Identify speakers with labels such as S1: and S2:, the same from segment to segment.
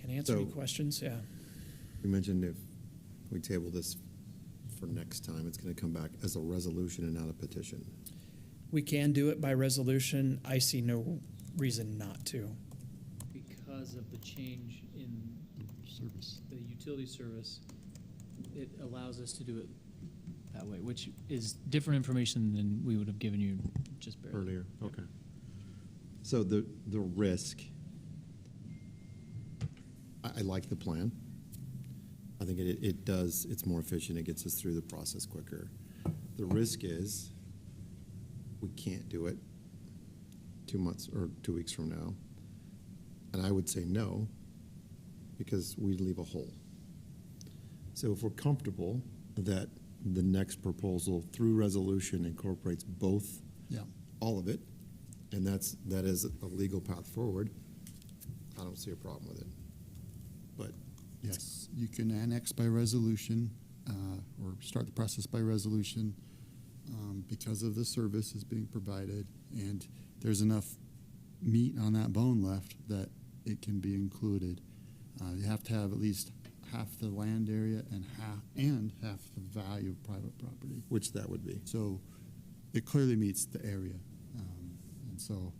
S1: can answer any
S2: So-
S1: questions, yeah.
S2: You mentioned if we table this for next time, it's going to come back as a resolution and not a petition.
S1: We can do it by resolution. I see no reason not to.
S3: because of the change in
S4: service.
S3: the utility service, it allows us to do it that way, which is different information than we would have given you just barely.
S2: Earlier, okay. So the, the risk, I, I like the plan. I think it, it does, it's more efficient, it gets us through the process quicker. The risk is, we can't do it two months or two weeks from now. And I would say no, because we leave a hole. So if we're comfortable that the next proposal through resolution incorporates both
S4: Yeah.
S2: all of it, and that's, that is a legal path forward, I don't see a problem with it. But,
S4: Yes, you can annex by resolution, uh, or start the process by resolution, um, because of the service is being provided, and there's enough meat on that bone left that it can be included. Uh, you have to have at least half the land area and half, and half the value of private property.
S2: which that would be.
S4: So it clearly meets the area. Um, And so,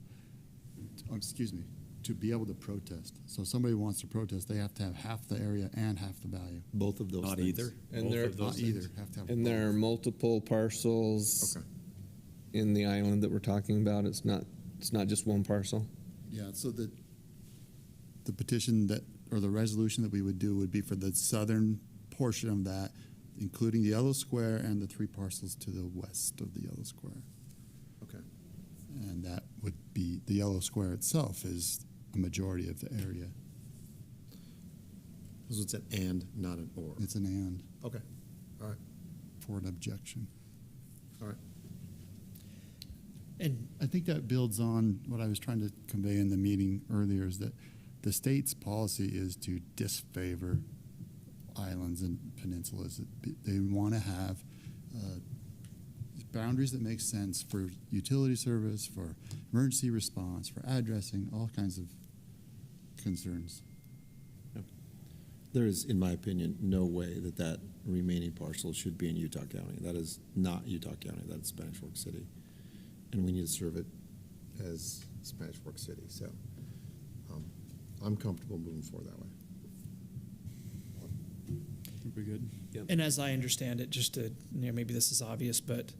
S4: oh, excuse me, to be able to protest. So if somebody wants to protest, they have to have half the area and half the value.
S2: Both of those
S5: Not
S2: things.
S5: either.
S6: And
S5: Both
S6: there-
S5: of those
S4: Not either,
S5: things.
S4: have to have.
S6: And there are
S4: both.
S6: multiple parcels
S2: Okay.
S6: in the island that we're talking about. It's not, it's not just one parcel.
S4: Yeah, so the, the petition that, or the resolution that we would do would be for the southern portion of that, including the yellow square and the three parcels to the west of the yellow square.
S2: Okay.
S4: And that would be, the yellow square itself is a majority of the area.
S2: So it's an and, not an or.
S4: It's an and.
S2: Okay, all right,
S4: for an objection.
S2: all right.
S1: And
S4: I think that builds on what I was trying to convey in the meeting earlier is that the state's policy is to disfavor islands and peninsulas. It- They want to have uh, boundaries that make sense for utility service, for emergency response, for addressing, all kinds of concerns.
S2: There is, in my opinion, no way that that remaining parcel should be in Utah County. That is not Utah County, that's Spanish Fork City. And we need to serve it as Spanish Fork City, so um, I'm comfortable moving forward that way.
S4: Pretty good.
S1: And as I understand it, just to, you know, maybe this is obvious, but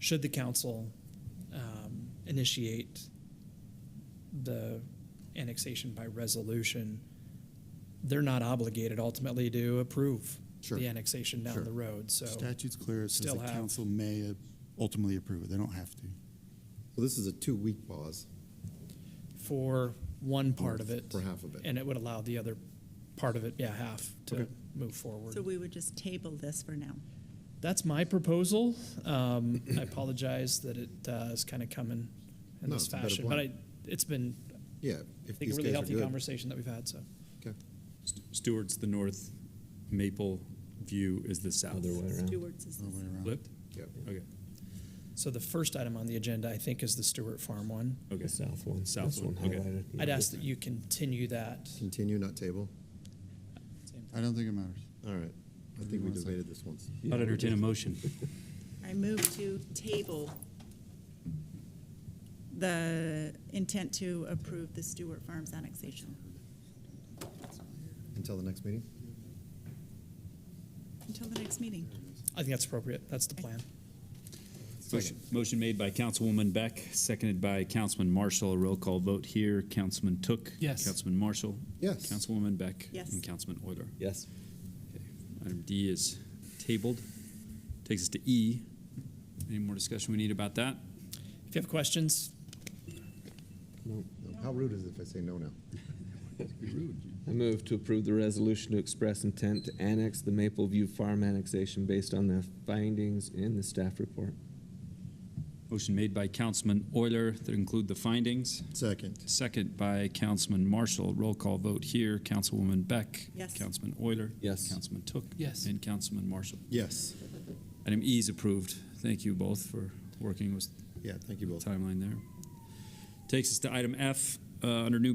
S1: should the council um, initiate the annexation by resolution, they're not obligated ultimately to approve
S2: Sure.
S1: the annexation down
S2: Sure.
S1: the road, so.
S4: Statute's clear. It says
S1: Still
S4: the
S1: have-
S4: council may uh, ultimately approve it. They don't have to.
S2: Well, this is a two-week pause.
S1: For one part of it.
S2: For half of it.
S1: And it would allow the other part of it, yeah, half, to move forward.
S7: So we would just table this for now.
S1: That's my proposal. Um, I apologize that it uh, is kind of coming in
S2: No,
S1: this
S2: it's a better
S1: fashion, but I,
S2: plan.
S1: it's been,
S2: Yeah.
S1: I
S2: if
S1: think,
S2: these
S1: a really
S2: guys are
S1: healthy
S2: good.
S1: conversation that we've had. So,
S2: Okay.
S5: St- Stewart's the north, Maple View is the south.
S6: Other way around.
S7: Stewart's is
S4: Other way around.
S5: Flipped?
S2: Yep.
S5: Okay,
S1: so the first item on the agenda, I think, is the Stewart Farm one.
S5: okay.
S6: The south one.
S5: South
S6: This
S5: one, okay.
S6: highlighted.
S1: I'd ask that you continue that.
S2: Continue, not table.
S4: I don't think it matters.
S2: All right. I think we debated this once.
S5: I'd entertain a motion.
S7: I move to table the intent to approve the Stewart Farms annexation
S2: Until the next meeting?
S7: until the next meeting.
S1: I think that's appropriate. That's the plan.
S5: Motion- Motion made by Councilwoman Beck, seconded by Councilman Marshall. A roll call vote here. Councilman Took.
S1: Yes.
S5: Councilman Marshall.
S2: Yes.
S5: Councilwoman Beck.
S7: Yes.
S5: And Councilman Euler.
S6: Yes.
S5: Okay. Item D is tabled. Takes us to E. Any more discussion we need about that?
S1: If you have questions,
S2: No. How rude is it if I say no now?
S6: I move to approve the resolution to express intent to annex the Maple View Farm annexation based on the findings in the staff report.
S5: Motion made by Councilman Euler that include the findings.
S2: Second.
S5: Second by Councilman Marshall. Roll call vote here. Councilwoman Beck.
S7: Yes.
S5: Councilman Euler.
S6: Yes.
S5: Councilman Took.
S1: Yes.
S5: And Councilman Marshall.
S2: Yes.
S5: Item E is approved. Thank you both for working with
S2: Yeah, thank you
S5: the
S2: both.
S5: timeline there. Takes us to item F, uh, under new